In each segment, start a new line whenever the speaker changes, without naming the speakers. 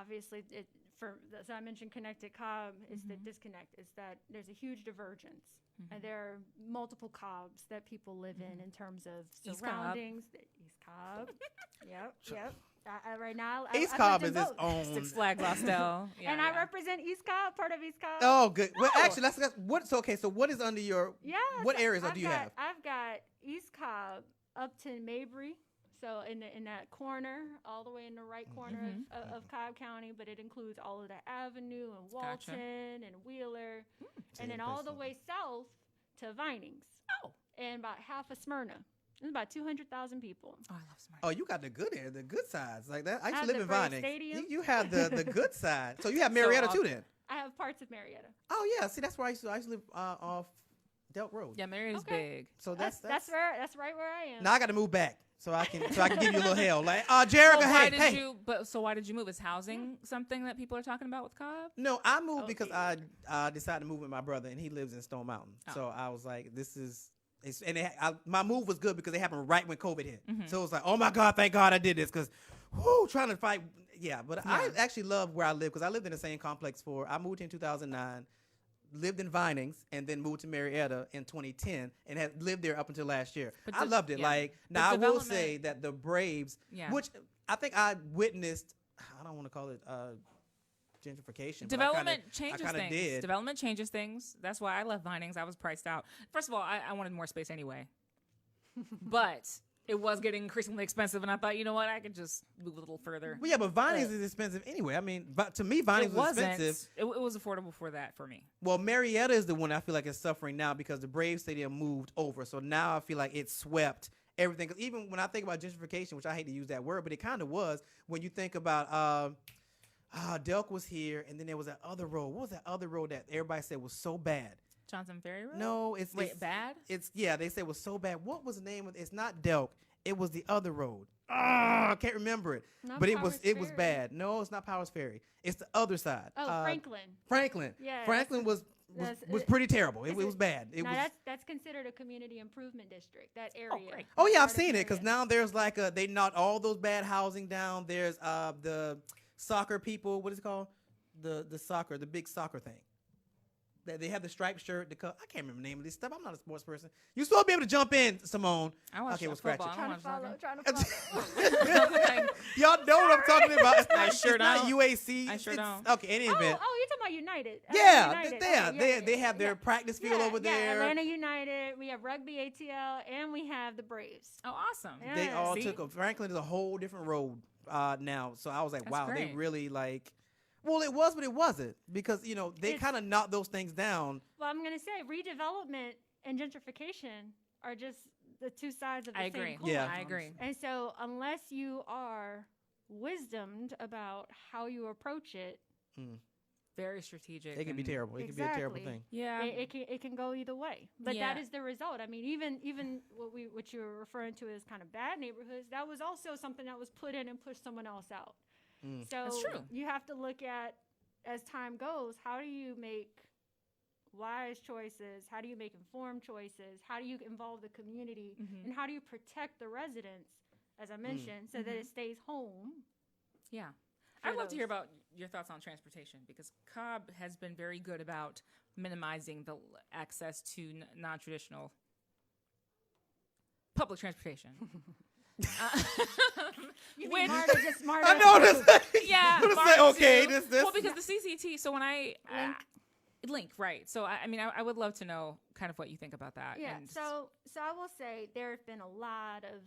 obviously, it, for, so I mentioned Connecticut Cobb is the disconnect, is that there's a huge divergence. And there are multiple Cobbs that people live in in terms of
Cobb.
surroundings. East Cobb. yep, yep. I, I, right now, I,
East
I
Cobb is
lived in
its
both.
own.
Six Flag Lostel. Yeah,
and
yeah.
I represent East Cobb, part of East Cobb.
Oh, good. Well, actually, that's, that's what. So, okay. So, what is under your?
Yeah.
What
so
areas
I've
do you
got,
have?
I've got East Cobb, Upton, Mabry. So in the, in that corner, all the way in the right corner of, of, of Cobb County, but it includes all of the Avenue and
Gotcha.
Walton and Wheeler,
So
and
you
then
play
all the
something.
way south to Vinings.
Oh.
And about half of Smyrna. It's about two hundred thousand people.
Oh, I love Smyrna.
Oh, you got the good air, the good sides like that. I used
At
to live
the
in
Braves
Vinings. You,
Stadium?
you have the the good side. So you have Marietta
all-
too, then.
I have parts of Marietta.
Oh yeah. See, that's where I used to. I used to live uh, off Delt Road.
Yeah, Mary is
Okay.
big.
So
That's
that's
that's, where that's right where I am.
Now I got to move back so I can so I can give you a little hell. Like, uh, Jerica,
Well, why
hey,
did
hey.
you? But so why did you move? Is housing something that people are talking about with Cobb?
No, I moved
Oh,
because I
dear.
I decided to move with my brother, and he lives in Stone Mountain.
Oh.
So I was like, this is. It's, and it, I, my move was good because it happened right when COVID hit.
Mm-hmm.
So it was like, oh my God, thank God I did this because, whoo, trying to fight. Yeah, but I
Yeah.
actually love where I live because I lived in the same complex for, I moved here in 2009, lived in Vinings, and then moved to Marietta in 2010 and had lived there up until last year.
But
I
the-
loved it.
yeah.
Like,
The
now I will
development-
say that the Braves,
Yeah.
which I think I witnessed, I don't want to call it uh, gentrification. but I kinda-
Development
I
changes
kinda
things.
did.
Development changes things. That's why I left Vinings. I was priced out. First of all, I, I wanted more space anyway, but it was getting increasingly expensive, and I thought, you know what, I could just move a little further.
Well, yeah, but Vinings
But-
is expensive anyway. I mean, but to me, Vinings
it
was
wasn't.
expensive.
It, it was affordable for that for me.
Well, Marietta is the one I feel like is suffering now because the Braves Stadium moved over. So now I feel like it swept everything. 'Cause even when I think about gentrification, which I hate to use that word, but it kind of was when you think about. Uh, Ah, Delk was here, and then there was that other road. What was that other road that everybody said was so bad?
Johnson Ferry Road.
No, it's
Wait,
it's-
bad?
It's yeah. They said it was so bad. What was the name of? It's not Delk. It was the other road. Ah, I can't remember it.
Not
but it was
Powers
it was
Ferry.
bad. No, it's not Powers Ferry. It's the other side.
Oh,
Uh,
Franklin.
Franklin.
Yeah,
Franklin was was,
that's-
was
it-
pretty terrible. It,
is
it
it-
was bad. It
now
was.
that's that's considered a community improvement district. That area.
great.
Oh
that
yeah,
part
I've
of
seen it because
Marietta.
now there's like a they knocked all those bad housing down. There's uh the soccer people. What is it called? The the soccer, the big soccer thing. That they have the striped shirt. The cup. I can't remember the name of this stuff. I'm not a sports person. You supposed to be able to jump in, Simone.
I watch
okay, we'll scratch
football.
it.
I don't
Trying
watch
to follow.
soccer.
Trying to follow.
Like,
Y'all know what I'm talking about. It's
I
not,
sure
it's not
don't.
UAC.
I sure
It's-
don't.
Okay, any
Oh, oh,
event.
you're talking about United. Uh,
yeah, they,
United.
they,
Okay, yeah,
they,
yeah,
they
yeah,
have their
yeah.
practice field
Yeah,
over
Yeah,
there.
Atlanta United. We have rugby ATL, and we have the Braves.
oh, awesome.
Yeah.
They all
See?
took a Franklin is a whole different road uh, now. So I was like,
That's
wow, they
great.
really like. Well, it was, but it wasn't because you know they
It's-
kind of knocked those things down.
Well, I'm gonna say redevelopment and gentrification are just the two sides of the
I
same
agree.
coin.
Yeah.
I agree.
And so, unless you are wisdomed about how you approach it,
Very strategic.
It can be
and-
terrible. It can be a terrible
Exactly.
thing.
Yeah.
it, it can it can go either way. But that
Yeah.
is the result. I mean, even even what we what you were referring to as kind of bad neighborhoods, that was also something that was put in and pushed someone else out.
Mm.
So
true.
you have to look at as time goes, how do you make wise choices? How do you make informed choices? How do you involve the community?
Mhm.
And how do you protect the residents, as I mentioned, so that it stays home?
Yeah.
for
I'd love to hear
those.
about your thoughts on transportation because Cobb has been very good about minimizing the l- access to n- non traditional public transportation. Uh, which-
Marta just Marta.
I know this.
yeah.
I'm just
Mark
like, okay,
too.
this this.
Well, because the CCT, so when I.
Ah,
Link.
I- link, right. So, I, I mean, I, I would love to know kind of what you think about that.
Yeah.
and-
So, so I will say there have been a lot of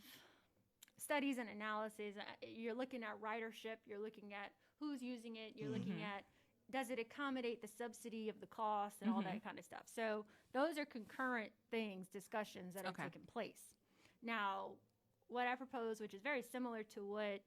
studies and analyses. Uh, You're looking at ridership. You're looking at who's using it. You're looking
Mm-hmm.
at does it accommodate the subsidy of the cost and all
Mm-hmm.
that kind of stuff. So those are concurrent things, discussions that
Okay.
are taking place. Now, what I propose, which is very similar to what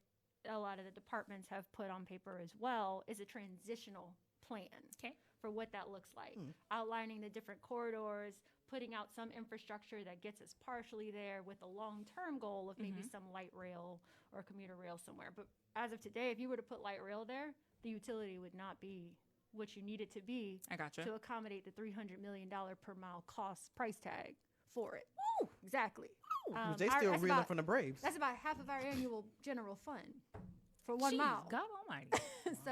a lot of the departments have put on paper as well, is a transitional plan
Okay.
for what that looks like, outlining the different corridors, putting out some infrastructure that gets us partially there with a long term goal of maybe some light rail or commuter rail somewhere. But as of today, if you were to put light rail there, the utility would not be what you need it to be
I gotcha.
to accommodate the $300 million per mile cost price tag for it. Exactly. Um,
they
our-
still
that's
reeling
about-
from the Braves.
That's about half of our annual general fund for one
Jeez,
mile.
God almighty.
so